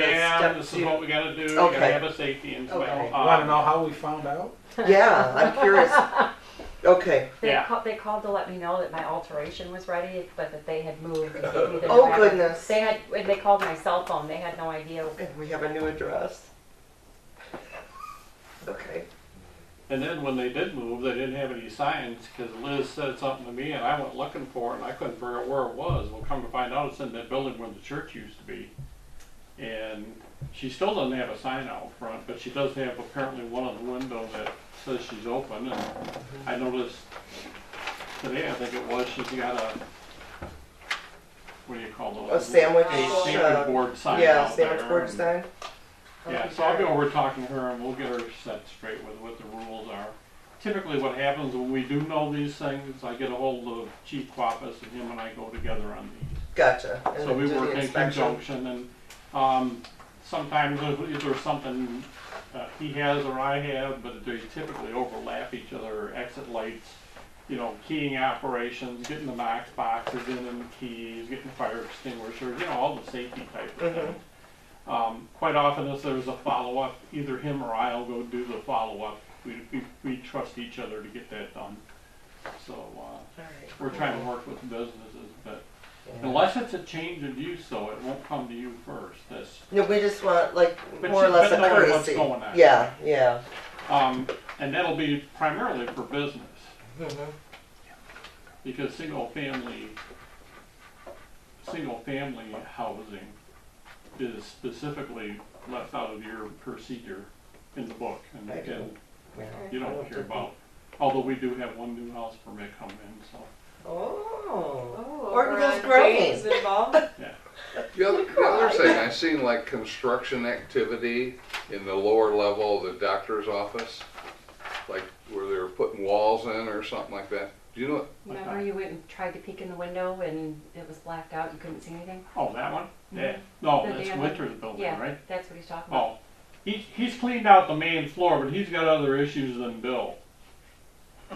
them, step this to- is what we gotta do, we gotta Okay. have a safety and Okay. well, You want uh, to know how we found out? Yeah, I'm curious. Okay. They, Yeah. called, they called to let me know that my alteration was ready, but that they had moved. And gave me the Oh, driver. goodness. They had. When they called my cell phone, they had no idea. And we have a new address. Okay. and then when they did move, they didn't have any signs, cause Liz said something to me and I went looking for it and I couldn't figure out where it was. Well, come to find out, it's in that building where the church used to be. And she still doesn't have a sign out front, but she does have apparently one on the window that says she's open and I noticed today, I think it was, she's got a, what do you call those? A sandwich, A uh, sandwich board sign Yeah, out there. sandwich board sign. Yeah, so I'll be over talking to her and we'll get her set straight with what the rules are. Typically what happens when we do know these things, I get a hold of Chief Quappus and him and I go together on these. Gotcha. And So then we do the work in inspection. conjunction and, um, sometimes if if there's something uh, he has or I have, but they typically overlap each other, exit lights, you know, keying operations, getting the box boxes in and keys, getting fire extinguishers, you know, all the safety type of Mhm. things. Um, quite often if there's a follow-up, either him or I'll go do the follow-up. We, we, we trust each other to get that done. So, uh, Alright, we're trying to cool. work with businesses, but Yeah. unless it's a change of use, though, it won't come to you first. That's No, we just want like But more or you- less a but knowing what's courtesy. going on. Yeah, yeah. Um, and that'll be primarily for business, Mhm. because single family, single family housing is specifically left out of your procedure in the book, and I and Yeah. you don't care about. Although we do have one new house permit come in, so, Oh. Oh, Or over those on grains. grains involved. The other, the other thing, I seen like construction activity in the lower level of the doctor's office, like where they were putting walls in or something like that. Do you know, Remember, you went and tried to peek in the window, and it was blacked out. You couldn't see anything. oh, that one? Yeah, no, The that's damn- Winter's building, yeah, right? that's what he's talking about. Oh, he, he's cleaned out the main floor, but he's got other issues than Bill.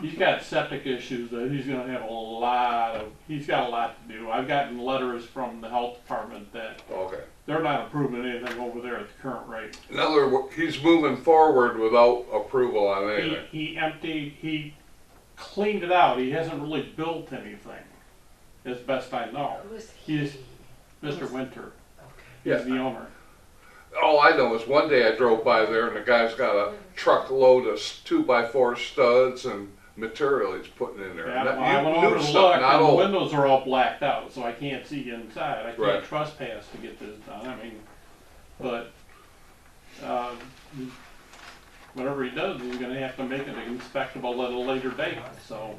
He's got septic issues that he's gonna have a lot of, he's got a lot to do. I've gotten letters from the health department that okay. they're not approving anything over there at the current rate. In other words, he's moving forward without approval on He, anything. he emptied, he cleaned it out. He hasn't really built anything, as best I know. Who's He's Mr. Winter. He's Yeah. the owner. All I know is one day I drove by there and the guy's got a truckload of s- two by four studs and material he's putting in there. Yeah, And that- well, I you went knew over to something, look, not and the old. windows are all blacked out, so I can't see inside. I can't Right. trespass to get this done. I mean, but um, whatever he does, he's going to have to make it inspectable at a later date. So,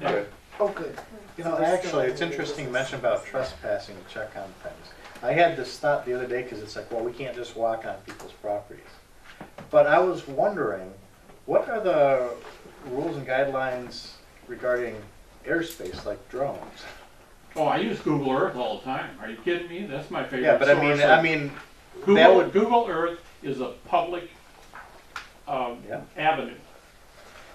yeah. Okay. Oh, good. You know, actually, it's interesting you mentioned about trespassing to check on things. I had this thought the other day because it's like, well, we can't just walk on people's properties. But I was wondering, what are the rules and guidelines regarding airspace, like drones? Oh, I use Google Earth all the time. Are you kidding me? That's my favorite. Yeah, but I mean, source I of- mean, Google, that would- Google Earth is a public um, Yeah. avenue.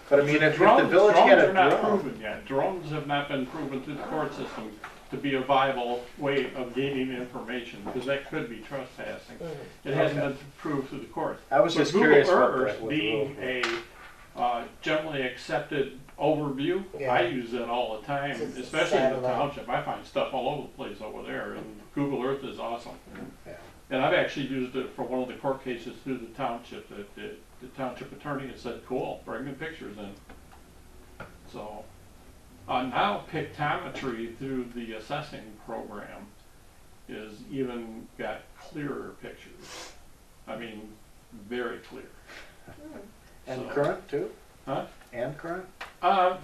but I mean, if if the Drones, village had drones a are not drone. proven yet. Drones have not been proven through the court system to be a viable way of gaining information, because that could be trespassing. It hasn't Okay. been proved through the courts. I was But just Google curious what the- Earth what the being rules a uh, generally accepted overview, I Yeah. use that all the time, It's a especially in the satellite. township. I find stuff all over the place over there, and Google Earth is awesome. Yeah. And I've actually used it for one of the court cases through the township, that the, the township attorney has said, cool, bring me pictures in. So, uh, now pictometry through the assessing program is even got clearer pictures. I mean, very clear. And So- current too? Huh? And current? Uh,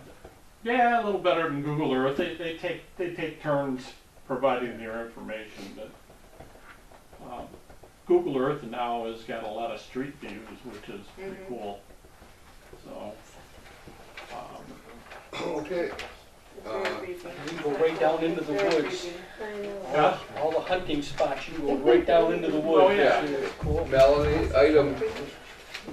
yeah, a little better than Google Earth. They, they take they take turns providing their information, but um, Google Earth now has got a lot of street views, which is pretty cool. So, um, Okay. Uh, You can go right down into the woods. yeah, All the hunting spots, you go right down into the woods. Oh, yeah. It's cool. Melanie, item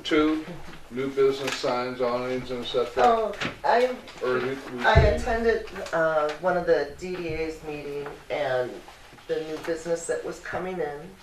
two, new business signs, awnings and such. Oh, I Or we- we- I attended uh, one of the DDA's meeting and the new business that was coming in